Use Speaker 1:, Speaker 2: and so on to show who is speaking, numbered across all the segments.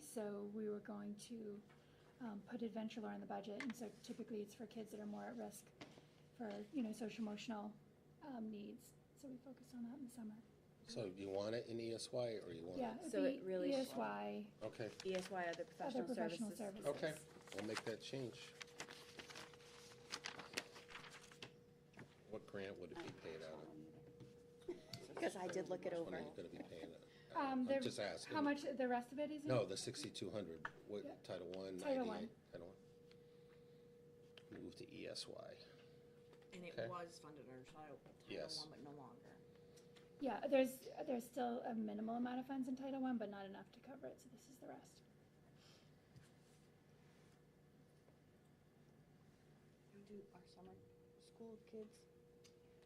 Speaker 1: so we were going to um, put adventure lore in the budget, and so typically it's for kids that are more at risk for, you know, social emotional um, needs, so we focused on that in the summer.
Speaker 2: So do you want it in ESY or you want?
Speaker 1: Yeah, it'd
Speaker 3: So it
Speaker 1: be E
Speaker 3: really-
Speaker 1: ESY,
Speaker 2: Okay,
Speaker 3: ESY, E other
Speaker 1: other
Speaker 3: professional
Speaker 1: professional
Speaker 3: services.
Speaker 1: services.
Speaker 2: okay, we'll make that change. What grant would it be paid out of?
Speaker 4: Because I did look it
Speaker 2: Which one are
Speaker 4: over.
Speaker 2: you gonna be paying out? of?
Speaker 1: Um,
Speaker 2: I'm
Speaker 1: the-
Speaker 2: just asking.
Speaker 1: How much the rest of it is in?
Speaker 2: No, the sixty-two hundred,
Speaker 1: Yeah.
Speaker 2: what, Title One,
Speaker 1: Title
Speaker 2: IDA?
Speaker 1: I.
Speaker 2: Title One. Move to E ESY.
Speaker 5: And
Speaker 2: Okay.
Speaker 5: it was funded under Title Title
Speaker 2: Yes.
Speaker 5: One, but no longer.
Speaker 1: Yeah, there's, there's still a minimal amount of funds in Title I, but not enough to cover it, so this is the rest.
Speaker 4: Do our summer school kids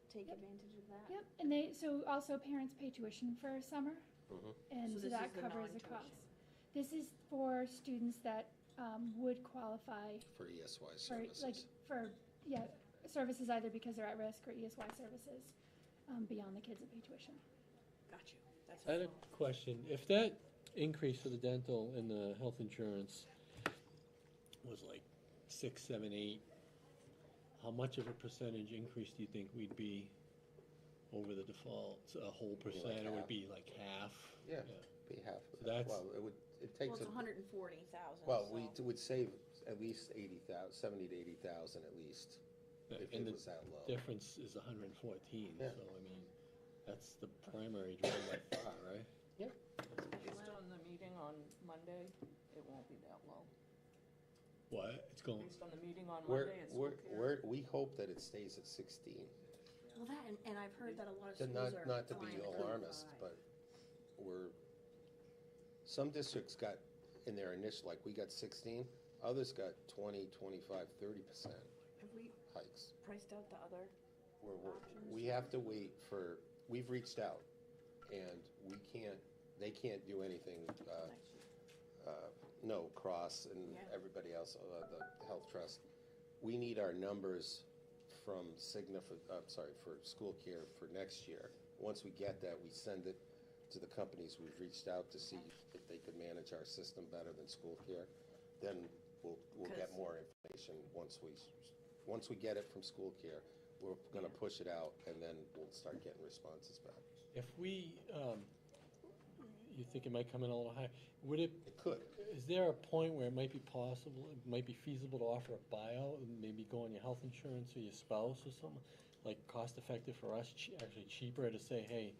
Speaker 4: take
Speaker 1: Yep.
Speaker 4: advantage of that?
Speaker 1: Yep, and they, so also parents pay tuition for summer,
Speaker 2: Mhm.
Speaker 1: and
Speaker 5: So
Speaker 1: so
Speaker 5: this
Speaker 1: that
Speaker 5: is the
Speaker 1: covers the
Speaker 5: non-tuition.
Speaker 1: cost. This is for students that um, would qualify
Speaker 2: For ESY
Speaker 1: for, like,
Speaker 2: services.
Speaker 1: for, yeah, services either because they're at risk or ESY services um, beyond the kids that pay tuition.
Speaker 5: Got you. That's
Speaker 6: I had a
Speaker 5: helpful.
Speaker 6: question. If that increase for the dental and the health insurance was like six, seven, eight, how much of a percentage increase do you think we'd be over the default? A whole percent, it would
Speaker 2: half.
Speaker 6: be like half?
Speaker 2: Yeah, be half. of that.
Speaker 6: that's-
Speaker 2: Well, it would, it
Speaker 5: Well,
Speaker 2: takes,
Speaker 5: it's
Speaker 2: a-
Speaker 5: hundred and forty thousand.
Speaker 2: well, we d- would save at least eighty thousand, seventy to eighty thousand at least, if
Speaker 6: And
Speaker 2: it
Speaker 6: the
Speaker 2: was that low.
Speaker 6: Difference is hundred and fourteen,
Speaker 2: Yeah.
Speaker 6: so I mean, that's the primary driver by far, right?
Speaker 2: Yeah.
Speaker 7: Based on the meeting on Monday, it won't be that low.
Speaker 6: What? It's going,
Speaker 7: Based on the meeting on Monday,
Speaker 2: We're,
Speaker 7: it's
Speaker 2: we're,
Speaker 7: okay.
Speaker 2: we're, we hope that it stays at sixteen.
Speaker 5: Well, that, and, and I've heard that a lot of
Speaker 2: Then
Speaker 5: schools
Speaker 2: Not,
Speaker 5: are.
Speaker 2: not to be
Speaker 5: flying the
Speaker 2: alarmist,
Speaker 5: 25.
Speaker 2: but we're, some districts got, in their initial, like, we got sixteen, others got 20, 25, 30 percent
Speaker 5: Have we
Speaker 2: hikes.
Speaker 5: priced out the other?
Speaker 2: We're, we're, we have to wait for, we've reached out, and we can't, they can't do anything, uh, uh, no, Cross and
Speaker 5: Yeah.
Speaker 2: everybody else, uh, the Health Trust. We need our numbers from Cigna for, I'm sorry, for school care for next year. Once we get that, we send it to the companies we've reached out to see if they could manage our system better than school care. Then we'll, we'll get
Speaker 5: 'Cause-
Speaker 2: more information once we, once we get it from school care. We're gonna push it out and then we'll start getting responses back.
Speaker 6: if we, um, you think it might come in a little higher, would it
Speaker 2: It could.
Speaker 6: Is there a point where it might be possible, it might be feasible to offer a buyout, and maybe go on your health insurance or your spouse or something? Like cost effective for us, che- actually cheaper to say, hey,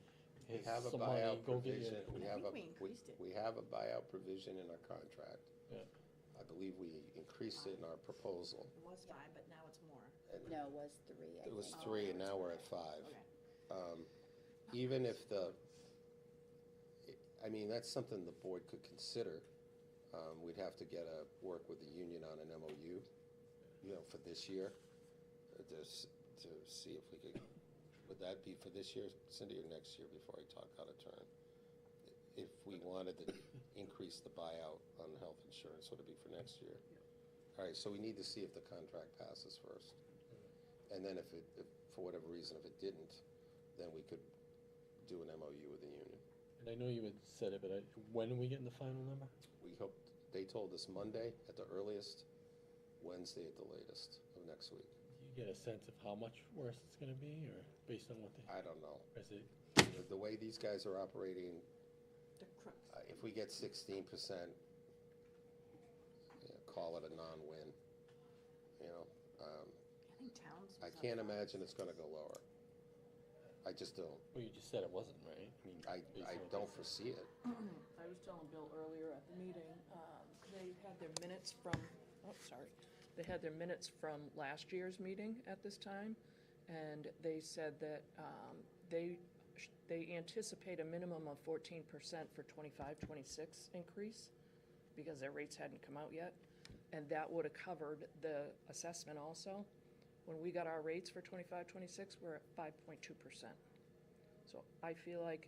Speaker 2: We
Speaker 6: here's
Speaker 2: have a
Speaker 6: some money,
Speaker 2: buyout
Speaker 6: go get your.
Speaker 2: provision. We
Speaker 5: I
Speaker 2: have
Speaker 5: think
Speaker 2: a
Speaker 5: we increased it.
Speaker 2: We have a buyout provision in our contract.
Speaker 6: Yeah.
Speaker 2: I believe we increased it in our proposal.
Speaker 5: It was five, but now it's more.
Speaker 2: and
Speaker 4: No, it was three, I
Speaker 2: It was
Speaker 4: think.
Speaker 2: three, and now we're at five.
Speaker 5: Okay.
Speaker 2: Um, Even if the, I mean, that's something the board could consider. Um, We'd have to get a, work with the union on an MOU, you know, for this year, uh, to, s- to see if we could, would that be for this year, Cindy, or next year, before I talk out of turn? If we wanted to increase the buyout on health insurance, would it be for next year? All right, so we need to see if the contract passes first. And then if it, if, for whatever reason, if it didn't, then we could do an MOU with the union.
Speaker 6: And I know you had said it, but I, when are we getting the final number?
Speaker 2: We hope, they told us Monday at the earliest, Wednesday at the latest of next week.
Speaker 6: Do you get a sense of how much worse it's gonna be, or based on what they,
Speaker 2: I don't know.
Speaker 6: or is it?
Speaker 2: The- The way these guys are operating,
Speaker 5: The crooks.
Speaker 2: uh, if we get sixteen percent, call it a non-win, you know? Um,
Speaker 5: I think towns.
Speaker 2: I
Speaker 5: was up
Speaker 2: can't
Speaker 5: five.
Speaker 2: imagine it's gonna go lower. I just don't.
Speaker 6: Well, you just said it wasn't, right? mean,
Speaker 2: I,
Speaker 6: based
Speaker 2: I
Speaker 6: on what they
Speaker 2: don't
Speaker 6: said.
Speaker 2: foresee it.
Speaker 7: I was telling Bill earlier at the meeting, um, they had their minutes from, oh, sorry. They had their minutes from last year's meeting at this time, and they said that um, they, sh- they anticipate a minimum of fourteen percent for 25, 26 increase, because their rates hadn't come out yet, and that would have covered the assessment also. When we got our rates for 25, 26 twenty-six, we're at five point two percent. So I feel like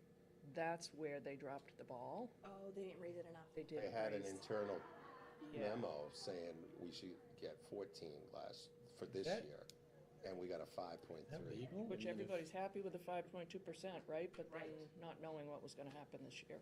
Speaker 7: that's where they dropped the ball.
Speaker 5: Oh, they didn't raise it enough.
Speaker 7: They
Speaker 2: I
Speaker 7: did
Speaker 2: had an
Speaker 7: raise-
Speaker 2: internal
Speaker 7: Yeah.
Speaker 2: memo saying we should get fourteen last, for this
Speaker 6: That-
Speaker 2: year, and we got a five point
Speaker 6: Is that
Speaker 2: three.
Speaker 6: legal? I
Speaker 7: Which
Speaker 6: mean, if-
Speaker 7: everybody's happy with the five point two percent, right? But then not knowing what was gonna happen this year.